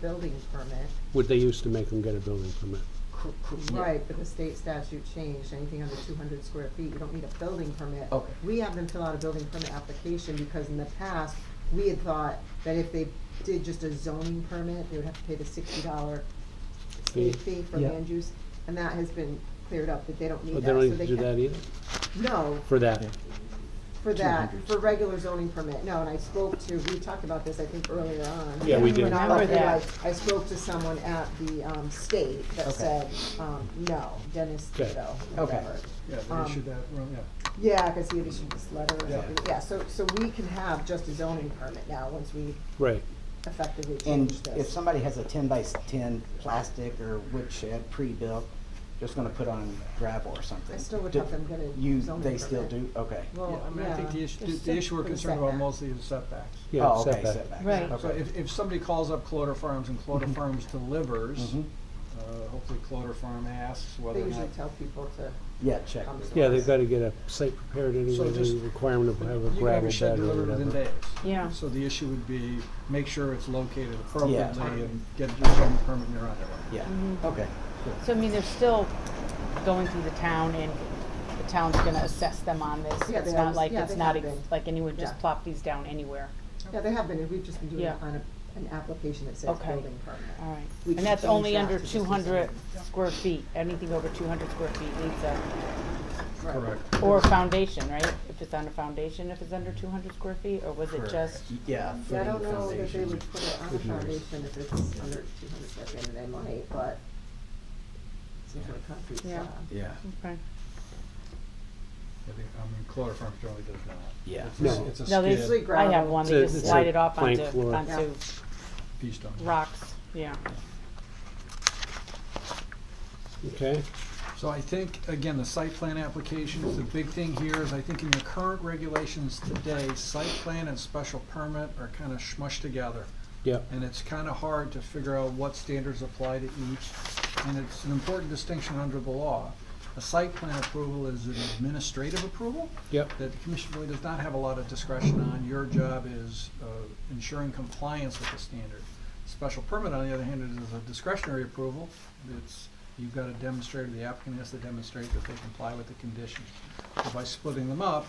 building permit. Would they used to make them get a building permit? Cor- cor- Right, but the state statute changed, anything under two hundred square feet, you don't need a building permit. Okay. We have them fill out a building permit application, because in the past, we had thought that if they did just a zoning permit, they would have to pay the sixty dollar state Fee. fee for Yeah. land use, and that has been cleared up, that they don't need But that, they so don't they need to do can- that either, No, for that? Yeah. for that, 200. for regular zoning permit, no, and I spoke to, we talked about this, I think, earlier on. Yeah, we did. When I Remember was there, that. I I spoke to someone at the, um, state that Okay. said, um, no, Dennis Okay. Tito, Okay. whatever. Yeah, they Um, issued that, wrong- yeah. Yeah, cause he had issued this letter or Yeah. something, yeah, so, so we can have just a zoning permit now, once we Right, effectively change And this. if somebody has a ten by s- ten plastic or wood shed pre-built, just gonna put on gravel or something. I still would do- have them get a You, zoning they still do, permit. okay. Yeah, Well, I mean, I think the yeah, issue, There's the set- issue for we're the concerned about setback. mostly is setbacks. yeah, Oh, okay, setback. setbacks, Right. okay. So if, if somebody calls up Cloder Farms and Cloder Farms delivers, Mhm. uh, hopefully Cloder Farm asks They whether or usually not. tell people to Yeah, check. come to Yeah, us. they've gotta get a site prepared anyway, So there's a just- requirement of have a You can have gravel a shed bed or delivered within days. whatever. Yeah. So the issue would be, make sure it's located appropriately Yeah. and get your zoning permit and you're on your way. Yeah, Mhm. okay. So I mean, they're still going through the town and the town's gonna assess them on this. Yeah, It's they not always- like, yeah, it's they not, have ex- been. like anyone just Yeah. plop these down anywhere. Yeah, they have been, and we've just been doing it Yeah. on a, an application that says Okay. Uh, building permit. All right. We And can that's change only that under to just a two hundred zone. square feet. Anything over two hundred square feet needs a, Correct. or a foundation, right? If it's on a foundation, if it's under two hundred square feet, or was it Correct. just? Yeah, Yeah, I footing don't know that they foundation. would put it on a foundation if it's under two hundred square feet, and they might, but some sort of concrete Yeah. slab. Yeah, Okay. I think, I mean, Cloder Farms generally does not. yeah. It's- No. It's a No, they- skid, I have one, they It's a- just it's a slide it off plank onto, floor. onto pea stone. rocks, yeah. Okay, So I think, again, the site plan applications, the big thing here is, I think in your current regulations today, site plan and special permit are kind of smushed together. yeah, And it's kind of hard to figure out what standards apply to each, and it's an important distinction under the law. A site plan approval is an administrative approval yep, that the commission really does not have a lot of discretion on. Your job is uh, ensuring compliance with the standard. Special permit, on the other hand, is a discretionary approval. It's, you've got to demonstrate, or the applicant has to demonstrate that they comply with the conditions. So By splitting them up,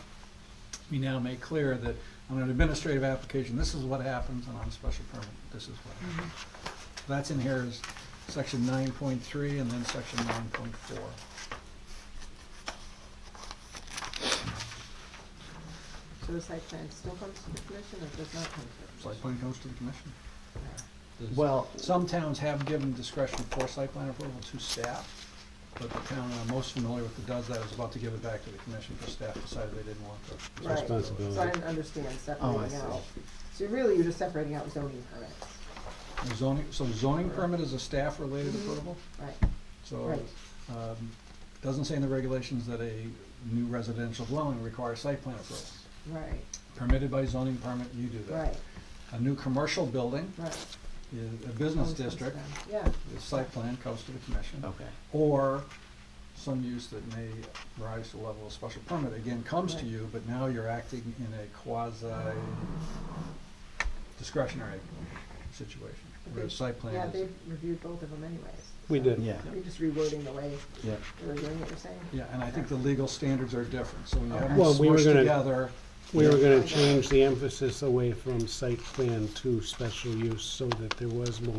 we now make clear that on an administrative application, this is what happens, and on a special permit, this is what happens. That's in here is section nine point three and then section nine point four. So the site plan still comes to the commission or does not come to the Site commission? plan comes to the commission. Does- Well, Some towns have given discretion for site plan approval to staff, but the town I'm most familiar with that does that is about to give it back to the commission because staff decided they didn't want the Right. So I responsibility. didn't understand uh, oh, I separating see. out. So really, you're just separating out zoning permits, And Zoning, so zoning permit is a staff-related approval, right? so, Mm-hmm. Right. um, doesn't say in the regulations that a new residential dwelling requires site plan approval. Right, Permitted by zoning permit, you do that. right, A new commercial building, right. is a business Always comes district, down. Yeah, the site plan comes to the commission. Okay. or some use that may rise to the level of special permit, again, comes to Right. you, but now you're acting in a quasi discretionary situation, where the site plan yeah, is. they've reviewed both of them anyways. we so did. Yeah, You're just rewording the way yeah. they were doing it, you're saying? Yeah, and I think the legal standards are different, so when you have them Well, we were smushed gonna- together, We were gonna change the emphasis away from site plan to special use so that there was more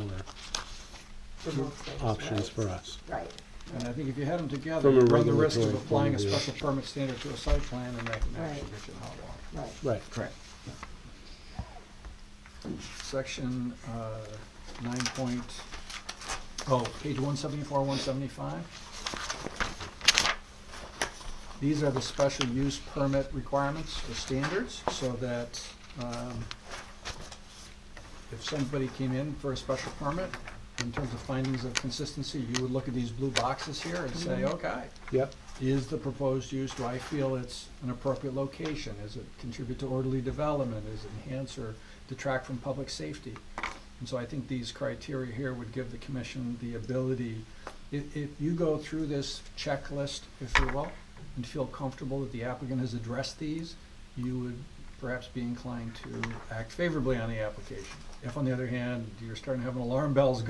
For most things, options right. for us. Right, and I think if you had them together, From a you run the risk of regulatory applying a point of view. special permit standard to a site plan, and that can actually Right. get you in hot water. right. Right, Correct. Section, uh, nine point, oh, page one seventy-four, one seventy-five. These are the special use permit requirements or standards, so that, um, if somebody came in for a special permit, in terms of findings of consistency, you would look at these blue boxes here and say, okay, yep, is the proposed use, do I feel it's an appropriate location? Is it contribute to orderly development? Is it enhance or detract from public safety? And so I think these criteria here would give the commission the ability, if, if you go through this checklist, if you will, and feel comfortable that the applicant has addressed these, you would perhaps be inclined to act favorably on the application. If on the other hand, you're starting to have an alarm bells